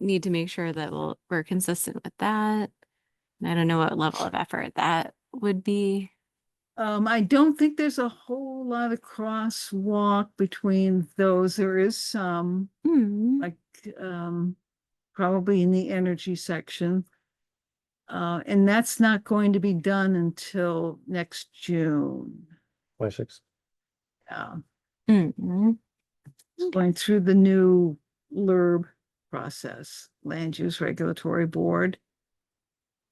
need to make sure that we'll- we're consistent with that. And I don't know what level of effort that would be. Um, I don't think there's a whole lot of crosswalk between those. There is some, Hmm, like, um, probably in the energy section. Uh, and that's not going to be done until next June. Twenty-six. Um, hmm. It's going through the new LURB process, Land Use Regulatory Board.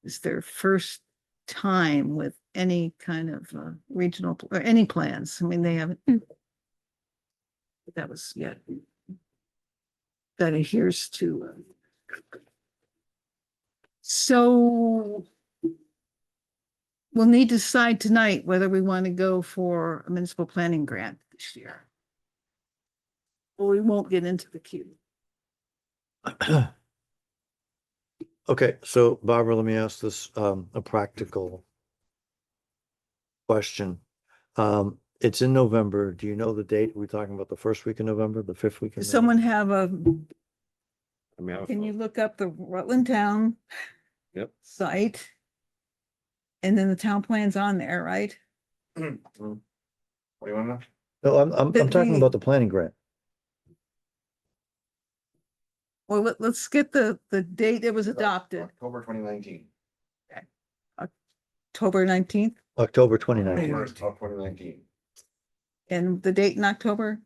It's their first time with any kind of uh, regional, pl- or any plans. I mean, they haven't. Hmm. But That was yet. That adheres to. uh, So we'll need to decide tonight whether we want to go for a municipal planning grant this year. Well, we won't get into the queue. Okay, so Barbara, let me ask this, um, a practical question. Um, it's in November. Do you know the date? We're talking about the first week in November, the fifth week? in Does someone November? have a, I mean, I- can you look up the Rutland Town? Yep. Site? And then the town plan's on there, right? Mm-hmm. What do you want to know? No, I'm, I'm, I'm But talking we- about the planning grant. Well, let, let's get the, the date it was adopted, October twenty nineteen. October nineteenth, October 29th. October twenty nineteen. and the date in October?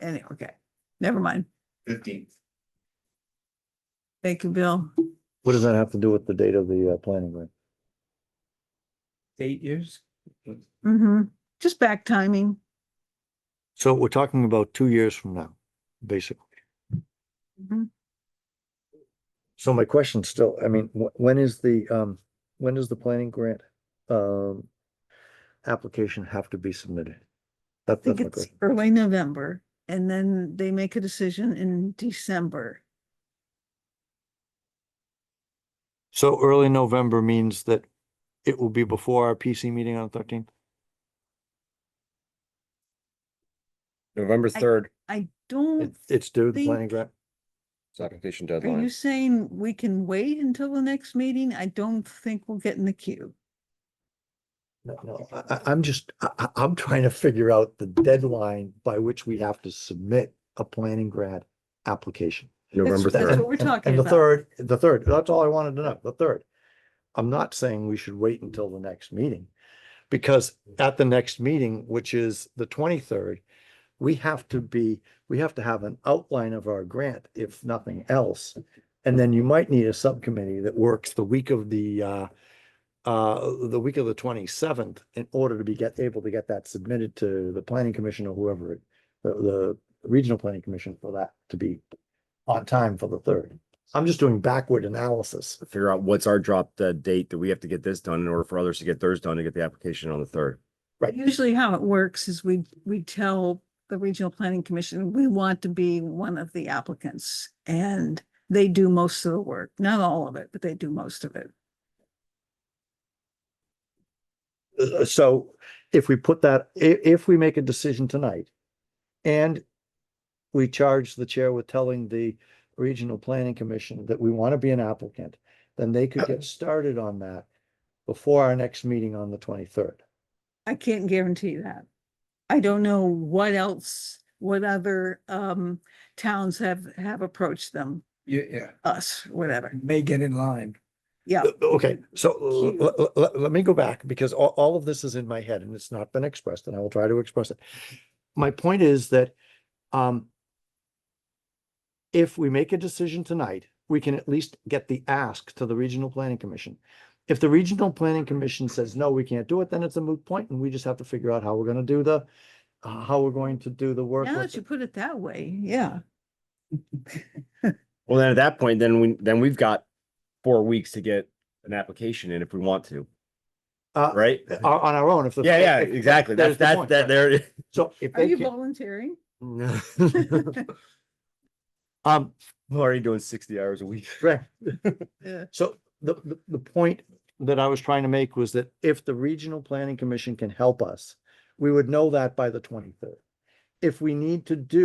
Anyway, okay, never mind. Fifteenth. Thank you, Bill. What does that have to do with the date of the, uh, planning grant? Eight years? Mm-hmm, just back timing. So we're talking about two years from now, basically. Mhm. So my question still, I mean, wh- when is the, um, when does the planning grant, um, application have to be submitted? I That- think That's my it's question. early November, and then they make a decision in December. So early November means that it will be before our PC meeting on the thirteenth? November I- third, I don't, It's due, the planning think- grant? it's application are you deadline. saying we can wait until the next meeting? I don't think we'll get in the queue. No, no, I, I, I'm just, I, I- I'm trying to figure out the deadline by which we have to submit a planning grant application. November That's third. what we're And- and- talking And the about. third, the third, that's all I wanted to know, the third. I'm not saying we should wait until the next meeting. Because at the next meeting, which is the twenty-third, we have to be, we have to have an outline of our grant, if nothing else. And then you might need a subcommittee that works the week of the, uh, uh, the week of the twenty-seventh in order to be get, able to get that submitted to the planning commission or whoever, it- the, the regional planning commission for that to be on time for the third. I'm just doing backward analysis. figure out what's our drop dead date that we have to get this done in order for others to get theirs done to get the application on the third. Right. Usually how it works is we, we tell the regional planning commission, we want to be one of the applicants. And they do most of the work, not all of it, but they do most of it. Uh, So if we put that, i- if we make a decision tonight and we charge the chair with telling the regional planning commission that we want to be an applicant, then they could get started on that before our next meeting on the twenty-third. I can't guarantee that. I don't know what else, what other um towns have have approached them, Yeah, yeah, us, whatever. may get in line. Yeah, Okay, so Cute. let, let me go back because all, all of this is in my head and it's not been expressed and I will try to express it. My point is that, um, if we make a decision tonight, we can at least get the ask to the Regional Planning Commission. If the Regional Planning Commission says, no, we can't do it, then it's a moot point and we just have to figure out how we're gonna do the, uh, how we're going to do the work. now with that you it. put it that way, yeah. Well, then at that point, then we, then we've got four weeks to get an application in if we want to, Uh, right? on, on our own, if the. Yeah, yeah, if- if- exactly. that is That's, the point, that's, that, right. there, it is. So if Are they you can't. volunteering? Um, I'm already doing sixty hours a week. Right. Yeah. So the, the, the point that I was trying to make was that if the regional planning commission can help us, we would know that by the twenty-third. If we need to do